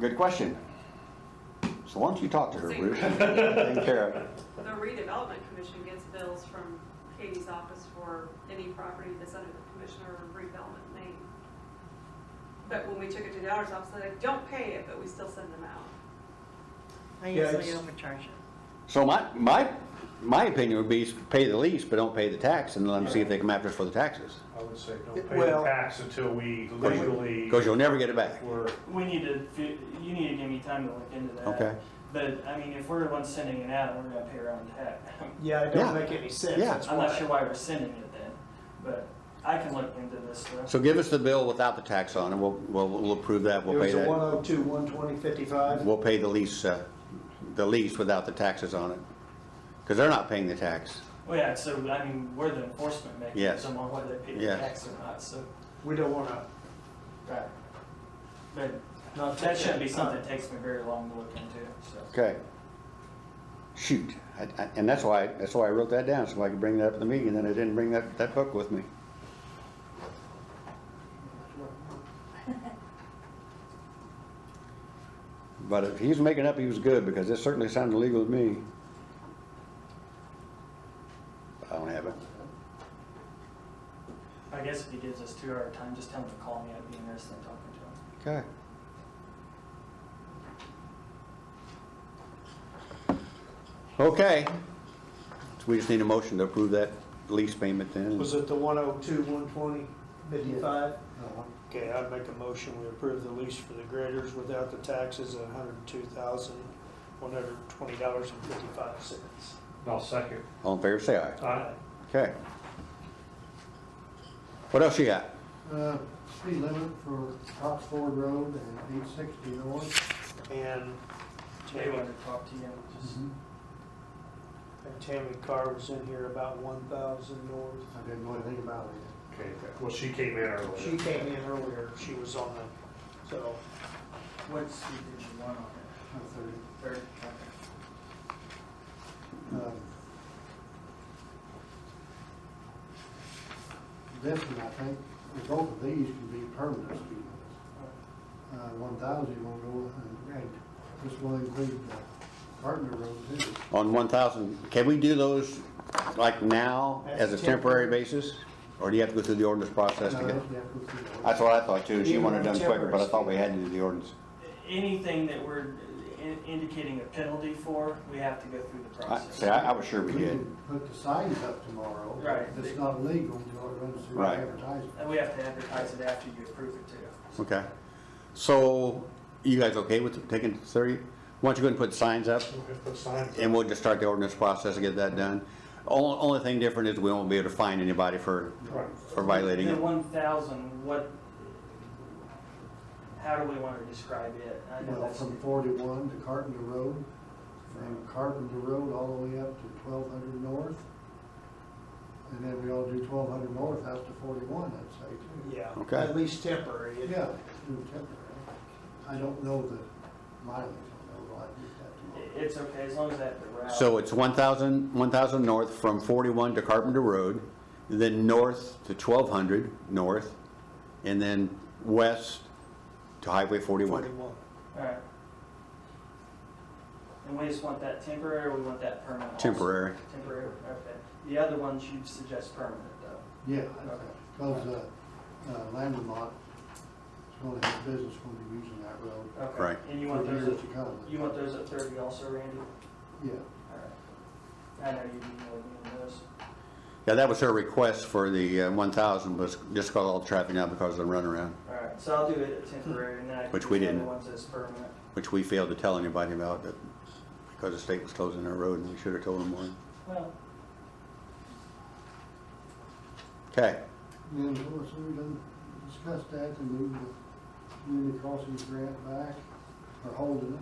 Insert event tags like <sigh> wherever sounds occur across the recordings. Good question. So why don't you talk to her, See. Bruce? Take care of it. The redevelopment commission gets bills from Katie's office for any property that's under the commissioner of redevelopment name. But when we took it to the auditor's office, they're like, don't pay it, but we still send them out. I Yeah, usually it's- overcharge it. So my, my, my opinion would be pay the lease, but don't pay the tax and let them see if they come after us for the taxes. I would say don't It- pay the well- tax until we Because legally you'll never get it back. were, We need to, fi- you need to give me time to look into that. Okay. But, I mean, if we're the ones sending it out, we're gonna pay our own tax. Yeah, it Yeah. don't make any sense. Yeah. That's I'm not why. sure why we're sending it then, but I can look into this stuff. So give us the bill without the tax on it. We'll, we'll, we'll approve that. It We'll pay was a one that. oh two, one twenty, fifty-five. We'll pay the lease, uh, the lease without the taxes on it. Because they're not paying the tax. Well, Oh, yeah, so, I mean, we're the enforcement Yes. mechanism on whether they pay the Yes. tax or not, so. We don't wanna Right. But not. that take shouldn't be something time. that takes me very long to look into, so. Okay. Shoot. I- I- And that's why, that's why I wrote that down, so I could bring that up at the meeting, and then I didn't bring that, that book with me. <laughs> But if he's making up, he was good, because it certainly sounded legal to me. I don't have it. I guess if he gives us two hour time, just tell him to call me, I'd be interested in talking to him. Okay. Okay. So we just need a motion to approve that lease payment then. Was it the one oh two, one twenty, fifty-five? Okay, I'd make a motion, we approve the lease for the graders without the taxes at hundred and two thousand, one hundred and twenty dollars and fifty-five cents. I'll second. uh, All in favor, say aye. Aye. Okay. What else you got? Uh, speed limit for Top Ford Road and eight sixty north. And They Tammy, wanted to talk to you, just, and Tammy Carr was in here about one thousand north. I didn't know anything about it. Okay, well, she came in She earlier. came in earlier, she was on the, so, what speed did you want on it? I thought Third, it, um, This one, I think, or both of these can be permanent speed limits. Uh, one thousand will go, uh, and, and this will include the partner road too. On one thousand, can we do those like now as a temporary basis? Or do you have to go through the ordinance process to Uh, get? yeah, we'll see. That's what I thought too. She wanted it done quicker, but I thought we had to do the ordinance. Anything that we're in- indicating a penalty for, we have to go through the I, process. see, I, I was sure We we did. can put the signs up tomorrow. Right. It's not legal until it runs through Right. advertising. And we have to advertise it after you approve it too. Okay. So you guys okay with taking thirty? Why don't you go ahead and put signs up? We'll have to sign it. And we'll just start the ordinance process and get that done. Only, only thing different is we won't be able to fine anybody for, Right. for violating The it. one thousand, what, how do we want to describe it? I know Well, that's, from forty-one to Carpenter Road, from Carpenter Road all the way up to twelve hundred north. And then we all do twelve hundred north, that's to forty-one, I'd say, too. yeah. Okay. At least temporary. It- Yeah, do temporary. I don't know the mileage, I know, I just have to. it's okay, as long as I have the route. So it's 1,000, 1,000 north from 41 to Carpenter Road, then north to 1,200 north, and then west to Highway 41. Forty-one. Alright. And we just want that temporary, or we want that permanent? also? Temporary. Temporary, okay. The other ones you'd suggest permanent though. Yeah, Okay. because, uh, uh, Landmark is going to have business when they're using that road. Okay. Right. And you want for those years at, to come. you want those at thirty also, Randy? Yeah, Alright. I know you'd be more than those. Yeah, that was her request for the uh, 1,000, was just call all the traffic now because of the runaround, Alright, so I'll do it at temporary and then I can Which do we the other didn't. ones as permanent. which we failed to tell anybody about but- because the state was closing their road and we should have told them more. Well, Okay, and then, of course, we done discussed that and move the community crossings grant back, or holding it.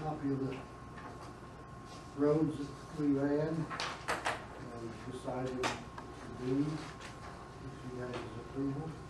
copy of the roads that we ran um, and decided to do, if you guys' approval. Uh,